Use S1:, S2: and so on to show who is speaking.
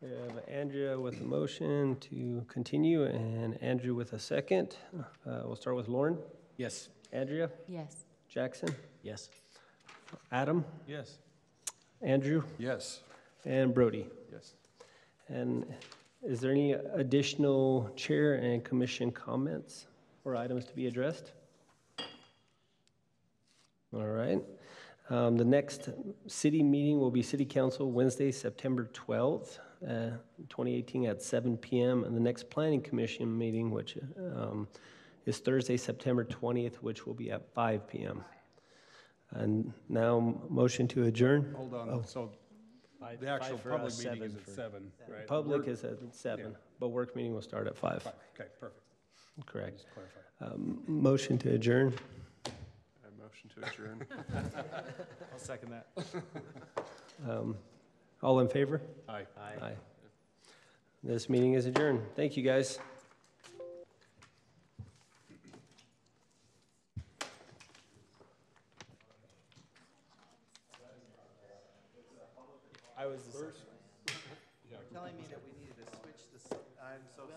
S1: We have Andrea with a motion to continue and Andrew with a second. Uh, We'll start with Lauren,
S2: Yes.
S1: Andrea,
S3: Yes.
S1: Jackson,
S2: Yes.
S1: Adam,
S2: Yes.
S1: Andrew,
S4: Yes.
S1: and Brody.
S4: Yes.
S1: And is there any additional chair and commission comments or items to be addressed? All right. Um, The next city meeting will be City Council Wednesday, September 12th, uh, 2018 at 7 PM. And the next Planning Commission meeting, which um, is Thursday, September 20th, which will be at 5 PM. And now, motion to adjourn.
S4: Hold on, so the actual
S2: uh,
S4: public meeting is at seven, right?
S1: Public
S4: We're-
S1: is at 7, but work meeting will start at 5.
S4: Five, okay, perfect,
S1: Correct.
S4: just clarify.
S1: Um, Motion to adjourn.
S5: I motion to adjourn.
S2: I'll second that.
S1: Um, All in favor?
S4: Aye.
S1: Aye. This meeting is adjourned. Thank you, guys.
S2: I was the second.
S6: telling me that we needed to switch this, I'm so